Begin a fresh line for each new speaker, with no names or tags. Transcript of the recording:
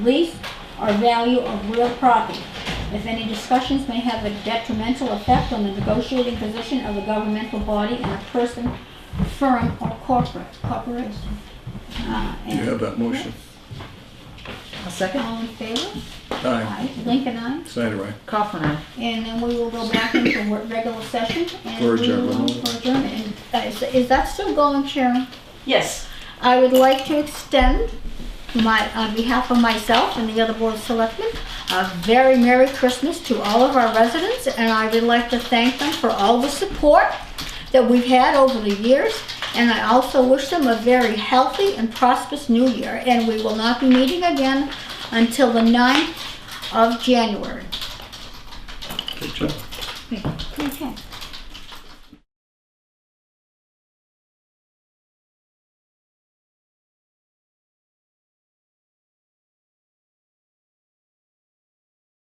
lease or value of real property. If any discussions may have a detrimental effect on the negotiating position of a governmental body and a person, firm, or corporate, corporation. Uh,
You
and-
have that motion.
A second.
All in favor?
Aye.
Aye. Lincoln, aye.
Snyder, aye.
Kaufman, aye.
And then we will go back into wor- regular session. and
For
we will-
adjournment.
For adjournment. And, uh, Is is that still going, Sharon?
Yes.
I would like to extend my, on behalf of myself and the other board of selectmen, a very Merry Christmas to all of our residents, and I would like to thank them for all the support that we've had over the years, and I also wish them a very healthy and prosperous new year, and we will not be meeting again until the 9th of January.
Good job.
Okay.